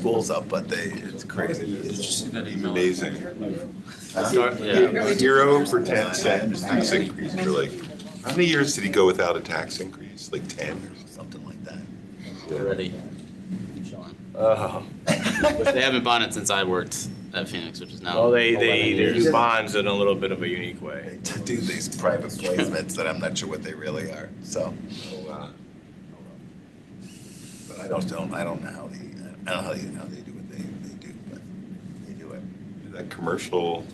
schools up, but they, it's crazy. Did you see that email? Amazing. Huh? Zero for 10 cents, tax increase. You're like, how many years did he go without a tax increase? Like 10? Something like that. Already. Which they haven't bought it since I worked at Phoenix, which is now. Um, Well, Oh, they, they 11 they years. do bonds in a little bit of a unique way. They do these private placements that I'm not sure what they really are, so. But I don't, don't, I don't know how they, I don't know how they, how they do what they, they do, but they do it. That commercial,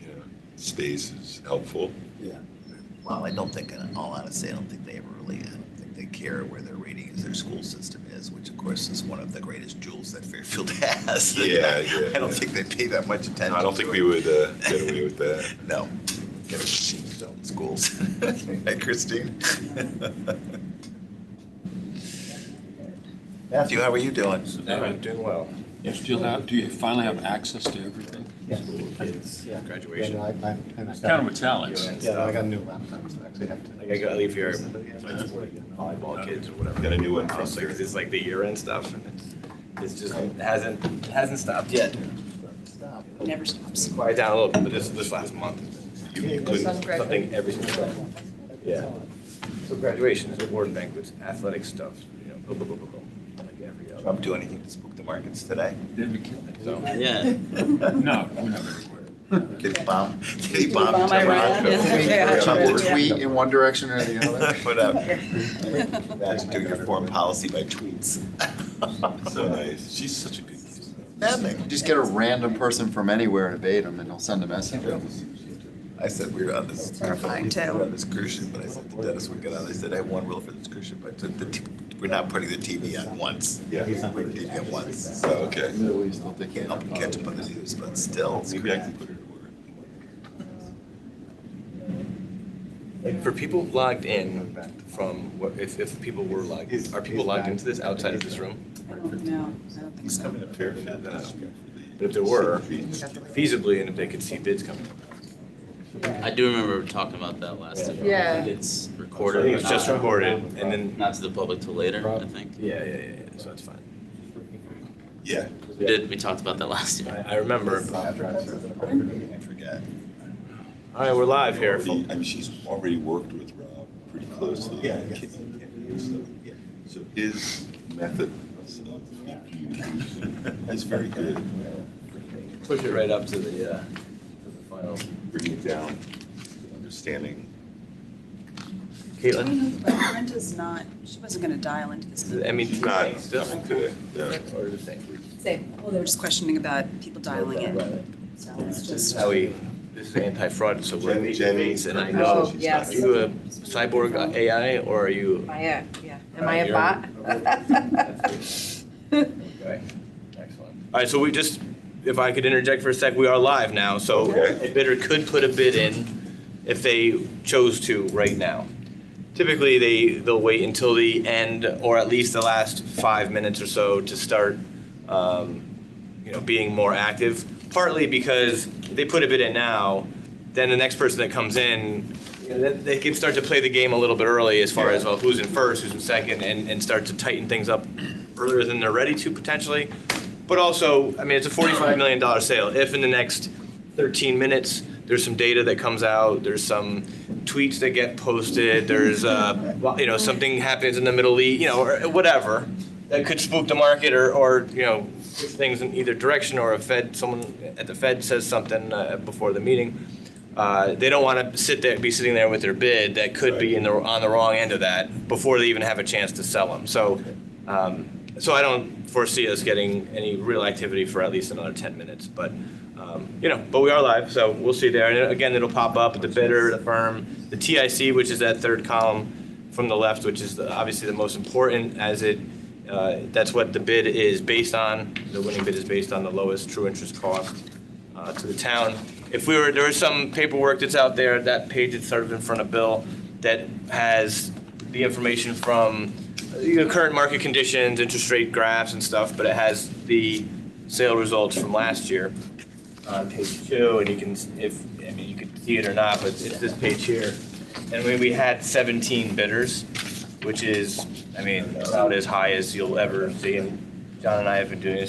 you know, stays is helpful. Well, I don't think, in all honesty, I don't think they ever really, I don't think they care where their rating is, their school system is, which of course is one of the greatest jewels that Fairfield has. Yeah, yeah, I don't yeah. think they pay that much attention. I don't think to we it. would uh, get away with that. No. Get a sheep zone schools. Hey, Christine. Matthew, how are you doing? Doing well. Do you have, do you finally have access to everything? Yes. Yeah. Graduation. Yeah, no, I- I- I- Kind of with Alex. Yeah, no, I got a new laptop, so I actually have to. Like I gotta leave here, Yeah. volleyball kids or whatever. Got a new one for It's like, Sarah. it's like the year end stuff and it's, it's just, it hasn't, it hasn't stopped yet. Stop. Never stops. Quiet down a little bit, but this, this last month, you you couldn't, something every single day. Yeah. So graduations, award banquets, athletic stuff, you know, blah, blah, blah, blah, blah. Like every other. Trump do anything to spook the markets today? Did we kill it? So, Yeah. No, we never recorded. Did he bomb? Did he bomb? Bomb Iran? Trump? Yeah. Trump Yeah. or Yeah. tweet? in one direction or the Put up. Imagine doing your foreign policy by tweets. So nice. She's such a good kid. Nothing. Just get a random person from anywhere and bait them and he'll send a message. I said we were on this. Terrifying, too. we were on this cruise ship, but I said to Dennis, we got on. I said I have one rule for this cruise ship. I said the t- we're not putting the TV on once. Yeah. We're not putting the TV on once. So, okay. Middle East, I'll take Can't help but catch up on the news, but still. it's Maybe I crazy. can put her to work. like for people logged in from, what- if, if people were logged, are people logged into this outside of this room? I don't know. I don't think so. Coming to Fairfield now. But if there were, Feet. feasibly, and if they could see bids coming up. I do remember talking about that last time. Yeah. I think It's I recorded. think it's but just not- recorded, and then, Not to the public till later, I think. yeah, yeah, yeah, yeah, so that's fine. Yeah. We did, we talked about that last year. I, I remember. I forget. All right, we're live here. Already- I mean, she's already worked with Rob pretty closely. Yeah. So his method of communication is very good, Push it right up to the, uh, to the final. bringing it down, understanding. Do Caitlin? you know that Brenta's not, she wasn't going to dial into this. I mean, It's not, it's nothing just- today. Yeah. Or the same. Same. Well, they were just questioning about people dialing in. So This it's is just. how we, this is anti-fraud, so we're. Jenny- Jenny. And I Oh, know, are yes. you a cyborg uh, AI or are you? Am I a, yeah, am I a You're- bot? Okay, excellent. All right, so we just, if I could interject for a sec, we are live now, so Okay. a bidder could put a bid in if they chose to right now. Typically, they, they'll wait until the end or at least the last five minutes or so to start, um, you know, being more active. Partly because if they put a bid in now, then the next person that comes in, you know, they, they can start to play the game a little bit early as far as well, who's in first, who's in second, and, and start to tighten things up earlier than they're ready to potentially. But also, I mean, it's a $45 million sale. If in the next 13 minutes, there's some data that comes out, there's some tweets that get posted, there's, uh, well, you know, something happens in the Middle East, you know, or uh, whatever, that could spook the market or, or, you know, things in either direction, or a Fed, someone at the Fed says something uh, before the meeting. Uh, They don't want to sit there, be sitting there with their bid that could be in the, on the wrong end of that before they even have a chance to sell them. So, um, so I don't foresee us getting any real activity for at least another 10 minutes, but, um, you know, but we are live, so we'll see there. And again, it'll pop up, the bidder, the firm, the TIC, which is that third column from the left, which is the- obviously the most important as it, uh, that's what the bid is based on. The winning bid is based on the lowest true interest cost uh, to the town. If we were, there is some paperwork that's out there, that page that's sort of in front of Bill, that has the information from the current market conditions, interest rate graphs and stuff, but it has the sale results from last year on page two, and you can, if, I mean, you could see it or not, but it's this page here. And we, we had seventeen bidders, which is, I mean, about as high as you'll ever see. And John and I have been doing this